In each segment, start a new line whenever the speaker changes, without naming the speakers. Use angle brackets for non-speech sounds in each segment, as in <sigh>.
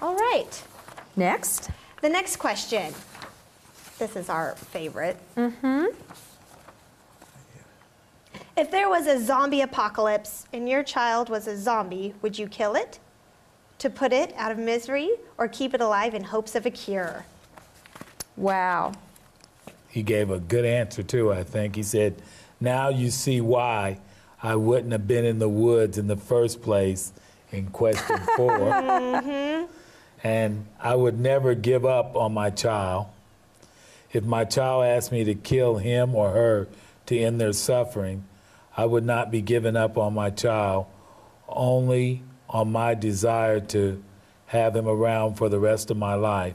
right.
Next.
The next question. This is our favorite. Mm-hmm. If there was a zombie apocalypse and your child was a zombie, would you kill it to put it out of misery or keep it alive in hopes of a cure?
Wow.
He gave a good answer too, I think. He said, Now you see why I wouldn't have been in the woods in the first place in question four. and I would never give up on my child. If my child asked me to kill him or her to end their suffering, I would not be giving up on my child, only on my desire to have him around for the rest of my life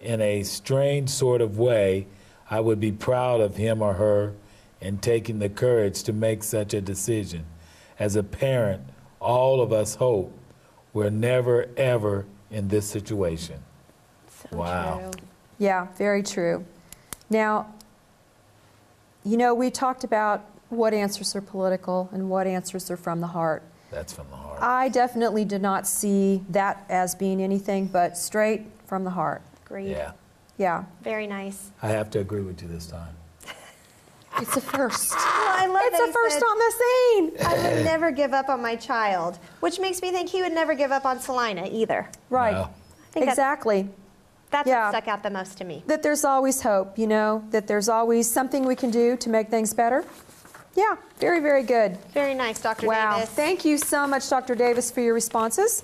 in a strange sort of way, I would be proud of him or her in taking the courage to make such a decision. As a parent, all of us hope we're never, ever in this situation. wow.
Yeah, very true. Now, you know, we talked about what answers are political and what answers are from the heart.
That's from the heart.
I definitely did not see that as being anything but straight from the heart.
Agreed.
yeah.
Yeah,
Very nice.
I have to agree with you this time.
it's a first.
Oh, I love
it's
that
a
he
first
said,
on the scene.
I would never give up on my child, which makes me think he would never give up on Selina either.
Right.
Wow.
think that-
Exactly.
That's
Yeah.
what stuck out the most to me.
That there's always hope, you know, that there's always something we can do to make things better. Yeah, very, very good.
Very nice, Dr.
Wow.
Davis.
Thank you so much, Dr. Davis, for your responses.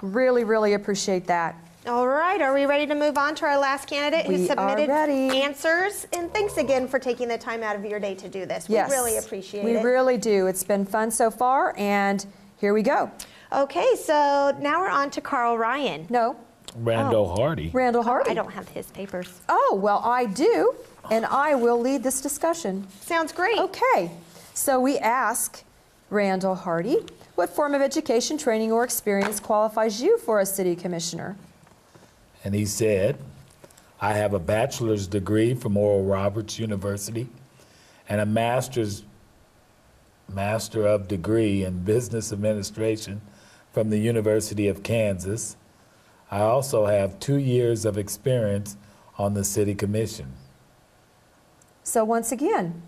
Really, really appreciate that.
All right, are we ready to move on to our last candidate who
We are
submitted
ready.
answers? And thanks again for taking the time out of your day to do this.
Yes.
We really appreciate
We
it.
really do. It's been fun so far, and here we go.
okay, so now we're on to Carl Ryan.
No,
Randall Hardy.
Randall Hardy.
I don't have his papers.
Oh, well, I do, and I will lead this discussion.
Sounds great.
Okay, so we ask Randall Hardy, what form of education, training, or experience qualifies you for a city commissioner?
And he said, I have a bachelor's degree from Oral Roberts University and a master's master of degree in business administration from the University of Kansas. I also have 2 years of experience on the city commission.
So once again,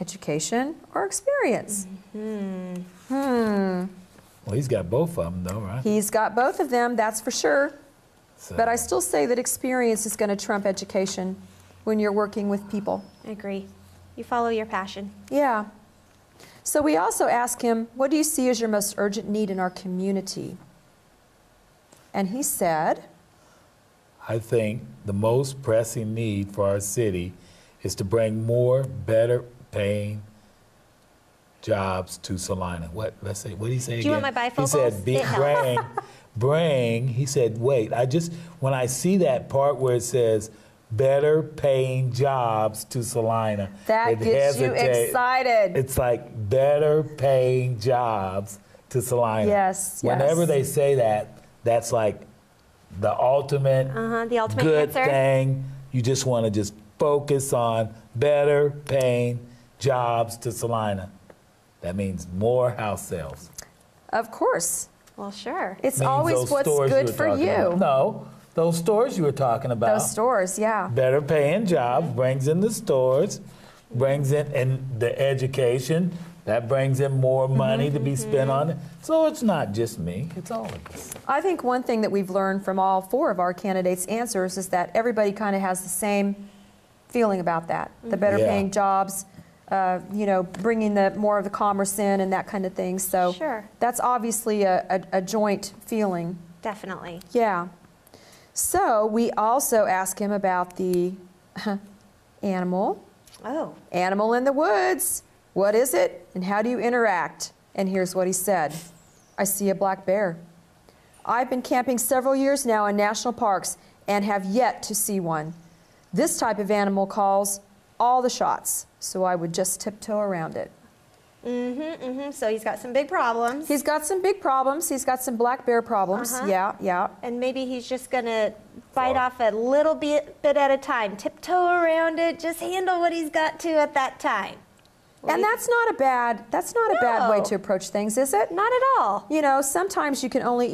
education or experience?
Mm-hmm.
Well, he's got both of them though, right?
He's got both of them, that's for sure.
So-
But I still say that experience is going to trump education when you're working with people.
I agree. You follow your passion.
Yeah. So we also ask him, What do you see as your most urgent need in our community? And he said,
I think the most pressing need for our city is to bring more better paying jobs to Salina. What let's say what did he say
Do you
again?
want my
He
bifocals?
said be,
It helps. <laughs>
bring bring he said wait, I just when I see that part where it says better paying jobs to Salina.
That
it
gets you
hesitates.
excited.
It's like better paying jobs to Salina.
Yes, yes.
Whenever they say that, that's like the ultimate
Uh-huh, the ultimate
good
answer.
thing. You just want to just focus on better paying jobs to Salina. That means more house sales.
Of course.
Well, sure.
It's
Means
always
those
what's
stores
good
were
for
talking
you.
about. No, those stores you were talking about.
Those stores, yeah.
Better paying jobs brings in the stores, brings in and the education. That brings in more money to be spent on it. So it's not just me; it's all of us.
I think one thing that we've learned from all four of our candidates' answers is that everybody kind of has the same feeling about that. The better
Yeah.
paying jobs, uh, you know, bringing the more of the commerce in and that kind of thing. So
Sure.
that's obviously a, a, a joint feeling.
Definitely.
Yeah. So we also ask him about the <laughs> animal,
Oh,
animal in the woods. What is it and how do you interact? And here's what he said I see a black bear. I've been camping several years now in national parks and have yet to see one. This type of animal calls all the shots, so I would just tiptoe around it.
hmm so he's got some big problems.
He's got some big problems. He's got some black bear problems.
Uh-huh.
Yeah, yeah.
and maybe he's just gonna bite
Wow.
off a little bit, bit at a time, tiptoe around it, just handle what he's got to at that time.
And that's not a bad that's not a bad way
No.
to approach things, is it?
Not at all.
You know, sometimes you can only